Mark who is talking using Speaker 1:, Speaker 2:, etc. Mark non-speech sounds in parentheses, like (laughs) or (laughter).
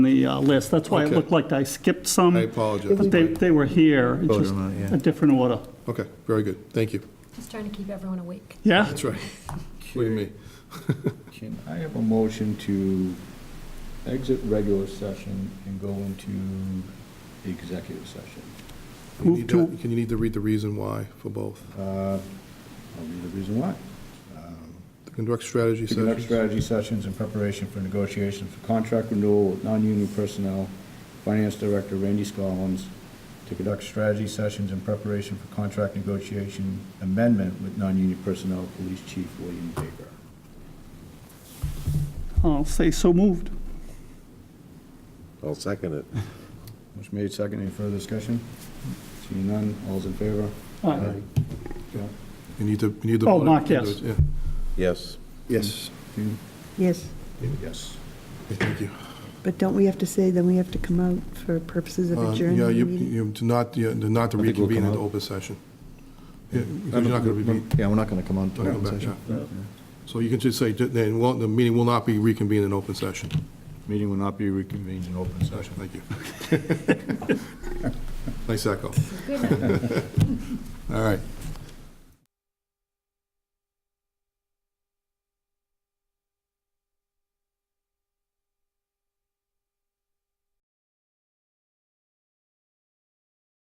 Speaker 1: the uh, list. That's why it
Speaker 2: Okay.
Speaker 1: looked like I skipped some.
Speaker 2: I apologize.
Speaker 1: But they, they were here, it's
Speaker 3: Voted
Speaker 1: just
Speaker 3: on it, yeah.
Speaker 1: a different order.
Speaker 2: Okay, very good, thank you.
Speaker 4: Just trying to keep
Speaker 1: (laughs)
Speaker 4: everyone awake.
Speaker 1: Yeah?
Speaker 2: That's right. Look at me.
Speaker 3: Can I have a motion to exit regular session and go into executive session?
Speaker 2: You
Speaker 1: Move
Speaker 2: need
Speaker 1: to-
Speaker 2: that- Can you need to read the reason why for both?
Speaker 3: Uh, I'll read the reason why.
Speaker 2: To conduct strategy
Speaker 3: To conduct
Speaker 2: sessions.
Speaker 3: strategy sessions in preparation for negotiations for contract renewal with non-union personnel, Finance Director Randy Scollins, to conduct strategy sessions in preparation for contract negotiation amendment with non-union personnel, Police Chief William Baker.
Speaker 1: I'll say so moved.
Speaker 5: I'll second it.
Speaker 3: Motion made, second, any further discussion? Seeing none, all's in favor?
Speaker 1: All right.
Speaker 3: Yeah.
Speaker 2: You need to, you need to.
Speaker 1: Oh,
Speaker 2: vote it.
Speaker 1: Mark,
Speaker 2: You do
Speaker 1: yes.
Speaker 2: it, yeah.
Speaker 5: Yes.
Speaker 2: Yes.
Speaker 3: Dean?
Speaker 6: Yes,
Speaker 3: David, yes.
Speaker 2: Okay, Thank you.
Speaker 6: but don't we have to say, then we have to come out for purposes of
Speaker 2: Uh,
Speaker 6: adjourning
Speaker 2: Yeah,
Speaker 6: the
Speaker 2: you,
Speaker 6: meeting?
Speaker 2: you do not, you do not to
Speaker 3: I think we'll
Speaker 2: reconvene
Speaker 3: come
Speaker 2: into
Speaker 3: out.
Speaker 2: open session. Yeah, because you're not gonna be,
Speaker 3: Yeah, we're not gonna come on to
Speaker 2: Not
Speaker 3: that
Speaker 2: come back,
Speaker 3: session.
Speaker 2: yeah. so you can just say, that they won't- the meeting will not be reconvened in open session.
Speaker 3: Meeting will not be reconvened in open session.
Speaker 2: Thank you.
Speaker 3: (laughs)
Speaker 2: Nice echo.
Speaker 4: Good night.
Speaker 2: All right.